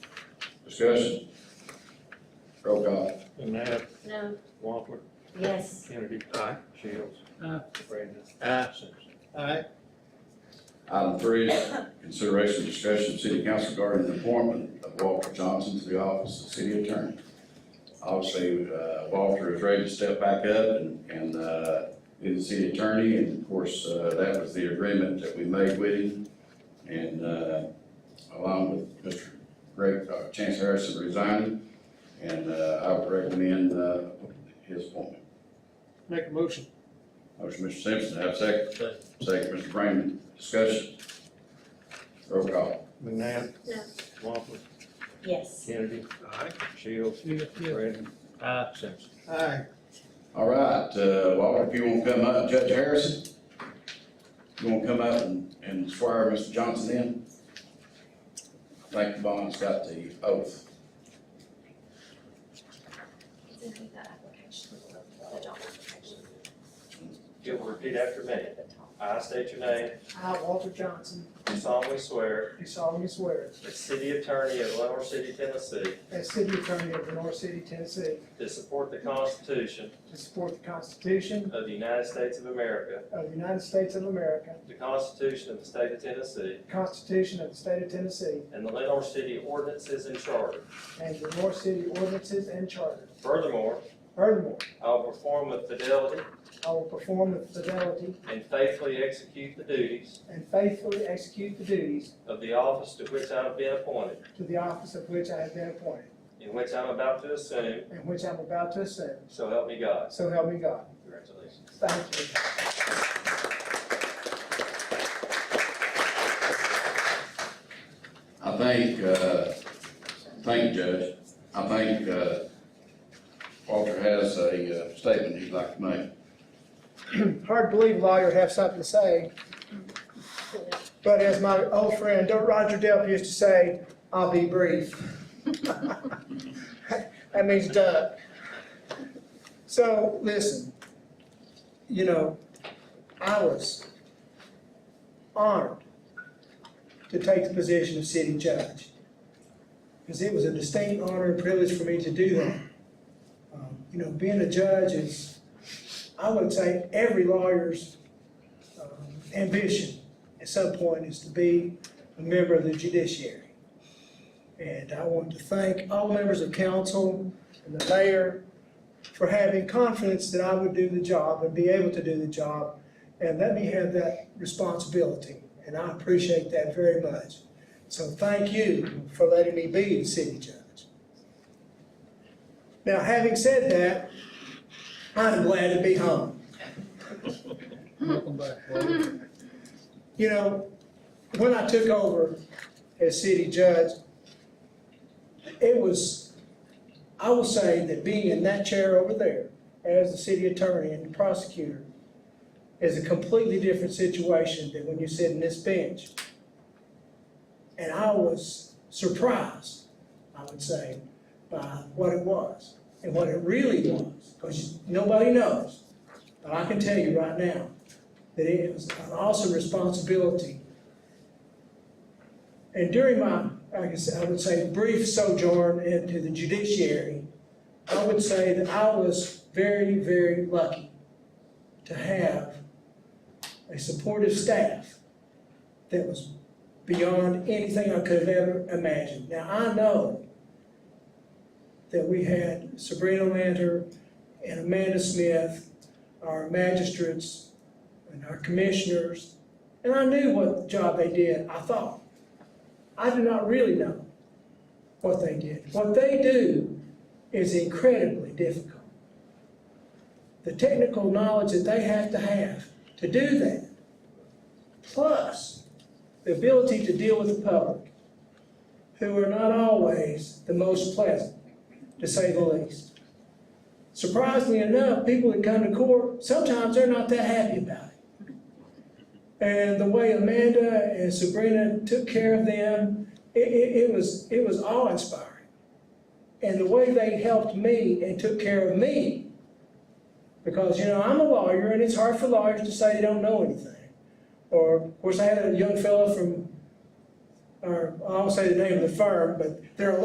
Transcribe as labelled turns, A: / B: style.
A: Discussion. Roll call.
B: Knapp,
C: No,
B: Wampler,
C: yes,
B: Kennedy.
D: Aye.
B: Shields.
D: Aye.
B: Brandon.
D: Aye.
B: Simpson.
D: Aye.
A: Item three is consideration and discussion of city council regarding the appointment of Walter Johnson to the office of city attorney. Obviously, uh, Walter is ready to step back up and, and, uh, be the city attorney, and of course, uh, that was the agreement that we made with him. And, uh, along with Mr. Greg, uh, Chance Harrison resigning, and, uh, I would recommend, uh, his appointment.
D: Make a motion.
A: Motion, Mr. Simpson, have a second. Second, Mr. Raymond, discussion. Roll call.
B: McNabb.
C: No.
B: Wampler,
C: yes.
B: Kennedy,
D: Aye.
B: Shields, Brandon.
D: Aye.
B: Simpson.
D: Aye.
A: All right, uh, Walter, if you want to come up, Judge Harrison, you want to come up and, and swear Mr. Johnson in? I think the bond's got the oath.
C: It's in the application, the job application.
E: You'll repeat after me.
C: At the top.
E: I state your name,
F: I, Walter Johnson,
E: do solemnly swear
F: do solemnly swear
E: as city attorney of Lenore City, Tennessee,
F: as city attorney of Lenore City, Tennessee,
E: to support the Constitution
F: to support the Constitution
E: of the United States of America,
F: of the United States of America,
E: the Constitution of the State of Tennessee,
F: the Constitution of the State of Tennessee,
E: and the Lenore City ordinances and charter.
F: and the Lenore City ordinances and charter.
E: Furthermore,
F: Furthermore,
E: I will perform with fidelity
F: I will perform with fidelity
E: and faithfully execute the duties
F: and faithfully execute the duties
E: of the office to which I have been appointed,
F: to the office of which I have been appointed,
E: in which I'm about to assume,
F: and which I'm about to assume.
E: so help me God.
F: So help me God.
E: Congratulations.
F: Thank you.
A: I think, uh, thank you, Judge. I think, uh, Walter has a uh, statement he'd like to make.
F: hard to believe a lawyer have something to say. But as my old friend Roger Delp used to say, I'll be brief. That means Doug. So, listen, you know, I was honored to take the position of city judge. Because it was a distinct honor and privilege for me to do that. Um, You know, being a judge is, I would say every lawyer's um, ambition at some point is to be a member of the judiciary. And I want to thank all members of council and the mayor for having confidence that I would do the job and be able to do the job and let me have that responsibility. And I appreciate that very much. So thank you for letting me be the city judge. Now, having said that, I'm glad to be home.
D: Welcome back, Walter.
F: You know, when I took over as city judge, it was, I will say that being in that chair over there as the city attorney and the prosecutor is a completely different situation than when you sit in this bench. And I was surprised, I would say, by what it was and what it really was, because nobody knows. But I can tell you right now, that it was an awesome responsibility. And during my, I guess I would say, brief sojourn into the judiciary, I would say that I was very, very lucky to have a supportive staff that was beyond anything I could have ever imagined. Now, I know that we had Sabrina Lanter and Amanda Smith, our magistrates, and our commissioners, and I knew what job they did, I thought. I do not really know what they did. What they do is incredibly difficult. The technical knowledge that they have to have to do that, plus the ability to deal with the public, who are not always the most pleasant, to say the least. Surprisingly enough, people that come to court, sometimes they're not that happy about it. And the way Amanda and Sabrina took care of them, it, it, it was, it was awe-inspiring. And the way they helped me and took care of me, because, you know, I'm a lawyer and it's hard for lawyers to say they don't know anything. Or, of course, I had a young fellow from, or I won't say the name of the firm, but they're a